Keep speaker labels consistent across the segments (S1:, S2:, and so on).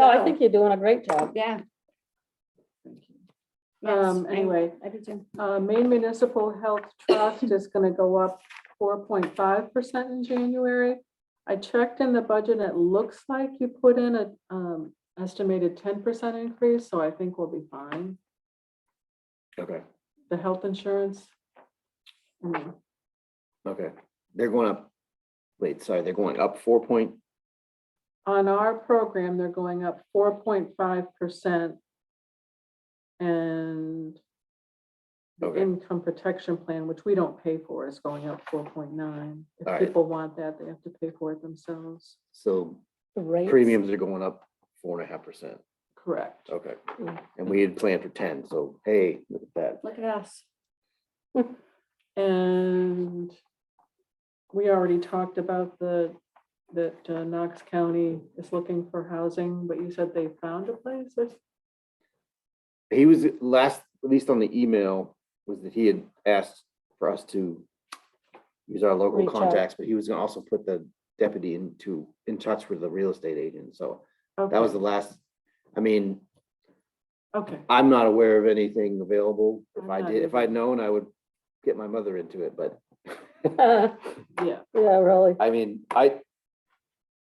S1: No, I think you're doing a great job.
S2: Yeah.
S3: Um,
S2: Yes, I-
S3: anyway,
S2: I did too.
S3: uh, Maine Municipal Health Trust is gonna go up four point five percent in January. I checked in the budget, it looks like you put in a, um, estimated ten percent increase, so I think we'll be fine,
S4: Okay,
S3: the health insurance. mm,
S4: okay. They're going up, wait, sorry, they're going up four point,
S3: On our program, they're going up four point five percent. And the
S4: Okay.
S3: income protection plan, which we don't pay for, is going up four point nine. If
S4: Alright.
S3: people want that, they have to pay for it themselves.
S4: so
S1: The rates.
S4: premiums are going up four and a half percent.
S3: Correct.
S4: Okay,
S1: Mm.
S4: and we had planned for ten, so hey, look at that.
S2: Look at us.
S3: And we already talked about the, that uh, Knox County is looking for housing, but you said they found a place. That's-
S4: He was last, at least on the email, was that he had asked for us to use our local
S1: Reach out.
S4: contacts, but he was gonna also put the deputy into, in touch with the real estate agent, so that was the
S3: Okay,
S4: last, I mean,
S3: Okay,
S4: I'm not aware of anything available. If
S3: I'm
S4: I
S3: not
S4: did, if
S3: either.
S4: I'd known, I would get my mother into it, but
S1: Yeah,
S3: yeah,
S1: really.
S4: I mean, I,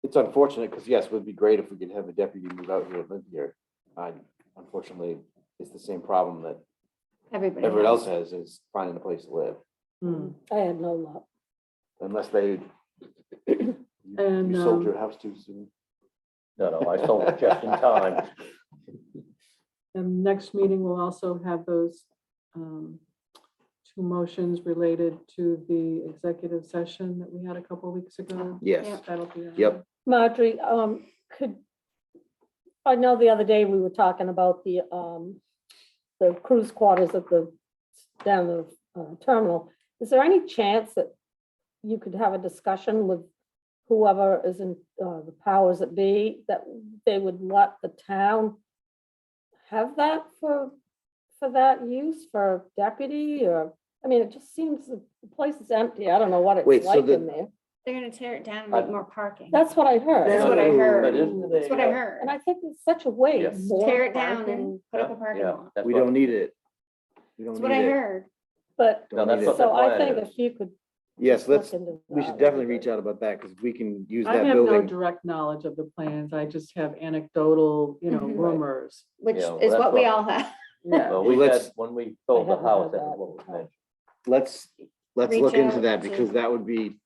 S4: it's unfortunate, because yes, it would be great if we could have a deputy move out here and live here. I, unfortunately, it's the same problem that
S2: Everybody.
S4: everyone
S2: has.
S4: else has, is finding a place to live,
S3: mm,
S1: I had no luck.
S4: unless they. You
S3: And,
S4: you sold
S3: um,
S4: your house too soon.
S5: No, no, I sold it just in time.
S3: and next meeting will also have those um, two motions related to the executive session that we had a couple weeks ago.
S4: Yes,
S3: That'll be. on.
S4: Yep.
S1: Marjorie, um, could, I know the other day we were talking about the, um, the cruise quarters at the, down the uh, terminal. Is there any chance that you could have a discussion with whoever is in, uh, the powers that be, that they would let the town have that for, for that use for deputy or, I mean, it just seems the place is empty. I don't know what
S4: Wait,
S1: it's
S4: so
S1: like
S4: the-
S1: in there.
S2: They're gonna tear it down and make
S5: I-
S2: more parking.
S1: That's what I heard.
S2: That's what I heard.
S5: But isn't
S2: That's what I
S5: the, uh,
S2: heard.
S1: And I think it's such a waste.
S5: Yes.
S2: Tear it down
S1: Parking.
S2: and put up a parking
S5: yeah,
S2: lot.
S5: that's
S4: we
S5: what-
S4: don't need it. We don't
S2: That's
S4: need
S2: what I
S4: it.
S2: heard.
S1: But,
S4: Don't
S5: No,
S4: need
S5: that's
S4: it.
S5: what
S1: so
S5: the
S1: I
S5: plan
S1: think if
S5: is.
S1: you could.
S4: Yes,
S1: look
S4: let's,
S1: into
S4: we
S1: that,
S4: should
S1: that'd
S4: definitely
S1: be
S4: reach
S1: great.
S4: out about that, because we can use
S3: I
S4: that
S3: have no
S4: building.
S3: direct knowledge of the plans. I just have anecdotal, you know,
S2: Mhm. Right.
S3: rumors.
S2: Which
S5: Yeah, well,
S2: is
S5: that's
S2: what we
S5: what-
S2: all have.
S3: Yeah.
S5: Well,
S4: Well,
S5: we had,
S4: let's-
S5: when we sold
S1: I
S5: the
S1: haven't
S5: house,
S1: had
S5: that was
S1: that.
S5: what was mentioned.
S4: Let's, let's
S2: Reach
S4: look into
S2: out
S4: that,
S2: to-
S4: because that would be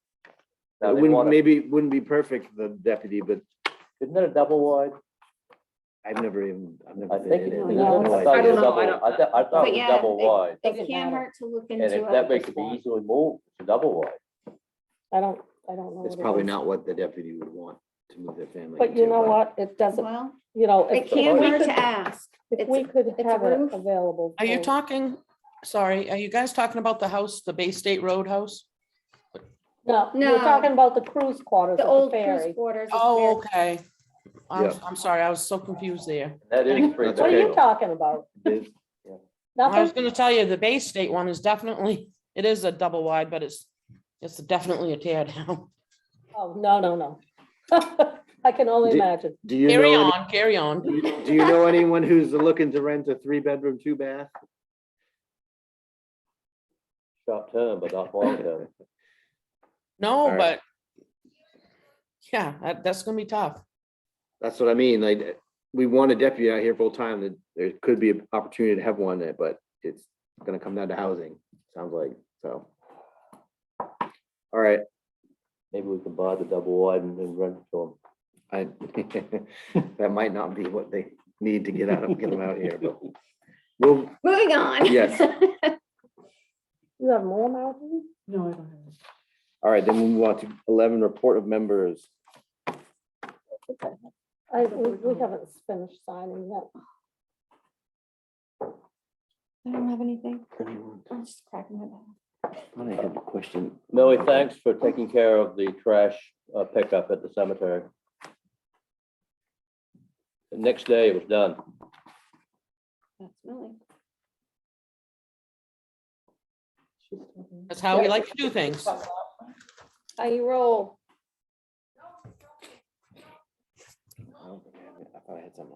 S5: Now,
S4: It
S5: they
S4: wouldn't,
S5: wanna-
S4: maybe, it wouldn't be perfect, the deputy, but
S5: Isn't it a double wide?
S4: I've never even, I've
S5: I
S4: never been
S5: think.
S4: in
S5: it
S4: it.
S5: is.
S1: No,
S5: I
S1: no,
S5: thought
S1: no. I
S5: it was
S1: don't
S5: double- I thought, I thought
S2: But
S5: it was
S2: yeah,
S5: double
S2: they-
S5: wide,
S2: It
S1: Doesn't
S2: can't
S1: matter.
S2: hurt to look
S5: and
S2: into
S5: if that
S2: it.
S1: big-
S5: makes it be easily moved, it's a double wide.
S1: I don't, I don't know.
S4: It's
S1: what it
S4: probably
S1: is.
S4: not what the deputy would want to move their family.
S1: But you
S4: into,
S1: know what? It doesn't,
S2: Well,
S1: you know. if-
S2: it
S1: if
S2: can't
S1: we
S2: hurt
S1: could-
S2: to ask.
S1: If we
S2: It's,
S1: could
S2: a
S1: have it
S2: roof.
S1: available.
S6: Are you
S4: Oh.
S1: for-
S6: talking, sorry, are you guys talking about the house, the Bay State Road house?
S1: No,
S2: No.
S1: you're talking about the cruise quarters
S2: the
S1: at the
S2: old cruise
S1: ferry.
S2: quarters. is
S6: Oh,
S2: where-
S6: okay. I'm,
S4: Yeah.
S6: I'm sorry, I was so confused there.
S5: And That is pretty
S4: That's
S1: What are
S4: okay.
S1: you
S5: big.
S1: talking about?
S4: There's-
S6: I was
S1: Nothing?
S6: gonna tell you, the Bay State one is definitely, it is a double wide, but it's, it's definitely a tear down.
S1: Oh, no, no, no. I can only
S4: Did-
S1: imagine.
S4: Do you
S6: Carry
S4: know,
S6: on, carry on.
S4: any- do you know anyone who's looking to rent a three-bedroom, two-bath?
S5: Short term, but not long term.
S4: All
S6: No,
S4: right.
S6: but yeah, that, that's gonna be tough.
S4: That's what I mean, like, we want a deputy out here full-time, that there could be an opportunity to have one there, but it's gonna come down to housing, sounds like, so. All right,
S5: Maybe we can buy the double wide and then rent it to
S4: I, that might not be what they need to get out of, get them out here, but we'll,
S2: Moving on.
S4: Yes.
S1: You have more mountains?
S3: No, I don't have. it.
S4: All right, then we move on to eleven, report of members.
S1: I, we we haven't finished signing yet.
S2: I don't have anything. I'm just cracking my back.
S4: I have a question.
S5: them. Millie, thanks for taking care of the trash uh, pickup at the cemetery. The next day it was done.
S2: That's really.
S3: She's talking.
S6: That's how we like to do things.
S2: How you roll.
S4: I don't think I have it. I I had something.